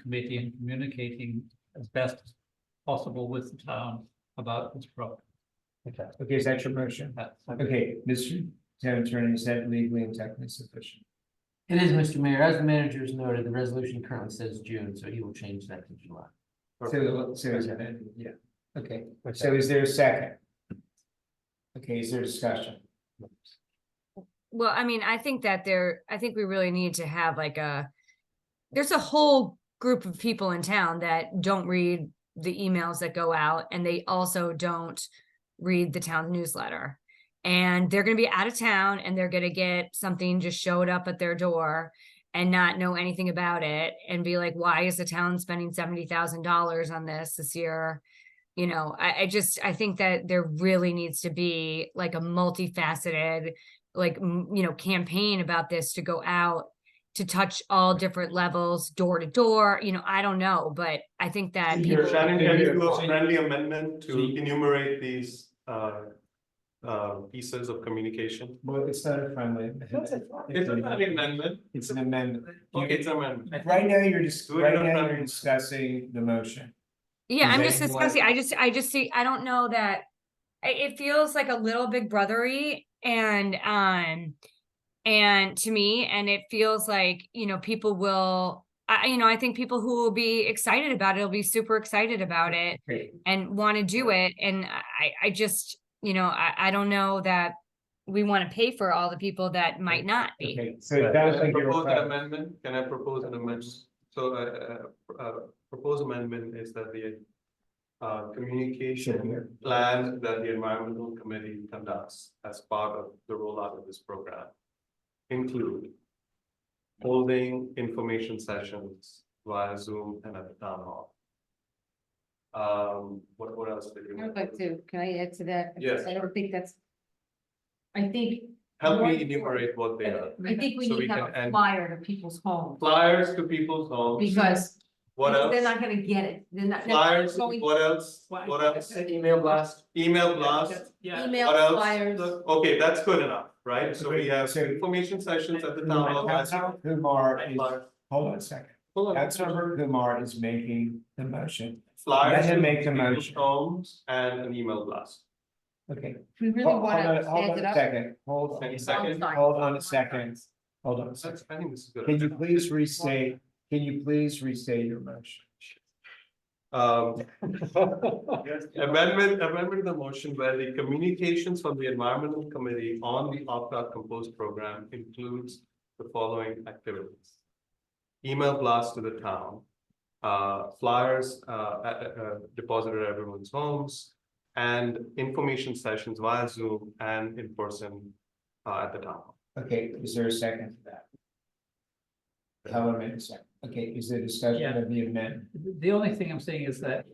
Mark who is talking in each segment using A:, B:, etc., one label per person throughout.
A: committee and communicating as best as possible with the town about this problem.
B: Okay, okay, is that your motion?
A: That's-
B: Okay, Mr. Town Attorney, is that legally and technically sufficient?
C: It is, Mr. Mayor. As the manager has noted, the resolution currently says June, so he will change that to July.
B: So, so is that, it? yeah, okay, so is there a second? Okay, is there discussion?
D: Well, I mean, I think that there, I think we really need to have like a, there's a whole group of people in town that don't read the emails that go out and they also don't read the town newsletter. And they're gonna be out of town and they're gonna get something just showed up at their door and not know anything about it and be like, why is the town spending seventy thousand dollars on this this year? You know, I, I just, I think that there really needs to be like a multifaceted like m- you know campaign about this to go out to touch all different levels door to door you know i don't know but i think that
E: Here,
D: people
E: Shannon, can you do a
B: So-
E: friendly amendment to
B: So-
E: enumerate these uh uh pieces of communication?
B: Well, it's not a friendly.
E: It's an amendment.
B: It's an amendment. You-
E: Okay, it's an amendment.
B: Right now, you're just,
E: Do it
B: right
E: in a
B: now, you're
E: friendly-
B: discussing the motion.
D: yeah i'm
B: Okay.
D: just discussing i just i just see i don't know that I- it feels like a little big brothery and um and to me and it feels like you know people will I, I- you know i think people who will be excited about it will be super excited about it
B: Great.
D: and want to do it. And I, I just, you know, I, I don't know that we want to pay for all the people that might not be.
B: Okay, so it sounds
E: Can I
B: like you're.
E: propose an
B: requiring-
E: amendment? Can I propose an amendment? So uh uh uh proposed amendment is that the uh communication plan that the environmental committee conducts as part of the rollout of this program include holding information sessions via Zoom and at the town hall. Um, what what else did you?
F: I'd like to, can I add to that?
E: Yes.
F: I don't think that's. I think,
E: Help me enumerate what they are.
F: I think we
E: So we
F: need to
E: can
F: have a
E: end-
F: flyer to people's homes,
E: Flyers to people's homes,
F: because
E: what else?
F: they're not gonna get it, they're not. they're
E: Flyers,
F: going-
E: what else, what else?
C: Email blast.
E: Email blast,
F: Email
E: what else?
F: flyers,
E: Okay, that's good enough, right? So we have
B: So-
E: information sessions at the
B: Who
E: town hall.
B: are-
E: as well.
B: Kumar is,
E: Flyers.
B: hold on a second,
E: Hold on.
B: Councilmember Kumar is making the motion,
E: Flyers.
B: Let him
E: to
B: make the
E: people's
B: motion.
E: Homes and an email blast.
B: okay.
F: we really
B: Hold hold
F: wanna
B: on, hold
F: stand
B: on
F: it
B: a
F: up.
B: second, hold on,
E: Any
B: a
E: second?
B: second, hold on a second, hold on a second.
E: That's, I think this is good.
B: Can you please restate, can you please restate your motion?
E: Um. Amendment, amendment to the motion where the communications from the environmental committee on the opt-out compost program includes the following activities. Email blast to the town, uh, flyers, uh, uh, uh, deposited at everyone's homes. And information sessions via Zoom and in person, uh, at the town. hall.
B: Okay, is there a second to that? Helen made a second, okay, is there discussion
A: Yeah.
B: of the amendment?
A: The only thing I'm saying is that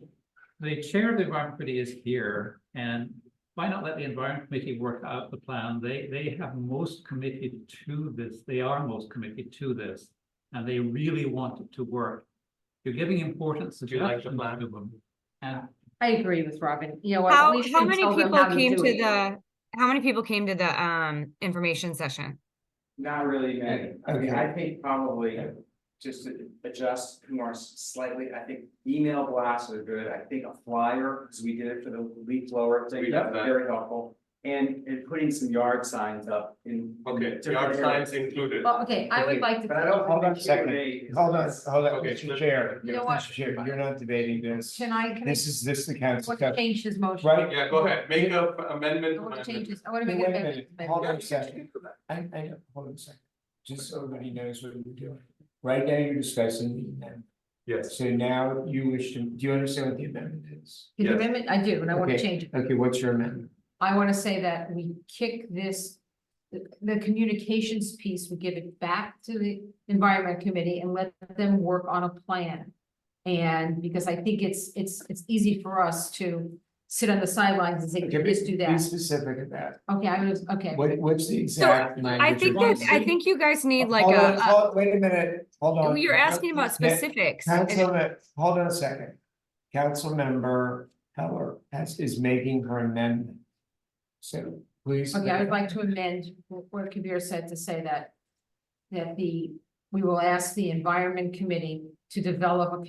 A: the chair of the environment committee is here and why not let the environment committee work out the plan? They, they have most committed to this. They are most committed to this. And they really want it to work. You're giving importance to
E: Do you like the
A: them.
E: plan?
A: And
F: I agree with Robin, you know what?
D: How,
F: we
D: how
F: shouldn't
D: many
F: tell them
D: people
F: how
D: came
F: do
D: to
F: it.
D: the, how many people came to the, um, information session?
G: Not really many, I mean,
B: Okay.
G: I think probably just to adjust more slightly, I think email blasts are good, I think a flyer, because we did it for the leaf blower
E: We
G: thing,
E: have
G: that's
E: that.
G: very helpful. And and putting some yard signs up in. in
E: Okay,
G: different
E: yard signs
G: areas.
E: included.
F: Well, okay, I
B: Okay,
F: would like to.
G: But I don't.
B: Hold on a
G: think
B: second.
G: Q&A is-
B: Hold on, hold on,
E: Okay,
B: Mr.
E: let's-
B: Chair,
F: You know what?
B: Mr. Chair, you're not debating this,
F: Can I, can I,
B: this is, this is the council.
F: want to change his motion?
B: Right.
E: Yeah, go ahead, make a amendment.
F: I want to
E: amendment.
F: change this, I want to
B: Wait
F: make an
B: a
F: amendment.
B: minute, hold on a second, I, I, hold on a second, just so everybody knows what you're doing. Right now, you're discussing the amendment,
E: Yes,
B: so now you wish to, do you understand what the amendment is?
F: Can you
E: Yes.
F: amend it? I do, and I want to
B: Okay.
F: change it.
B: Okay, what's your amendment?
F: I want to say that we kick this, the, the communications piece, we give it back to the environment committee and let them work on a plan. And because I think it's, it's, it's easy for us to sit on the sidelines and say,
B: Okay,
F: just do
B: Be
F: that.
B: specific about it.
F: Okay, I was, okay.
B: What, what's the exact language?
D: I think
B: of
D: that,
B: this?
D: I think you guys need like
B: Hold on,
D: a,
B: hold- Wait a minute, hold
D: a-
B: on.
D: you're asking about specifics.
B: Council, hold on a second. Councilmember Heller has, is making her amendment. So please.
F: Okay, I would like to amend wh- what Kabir said to say that, that the, we will ask the environment committee to develop a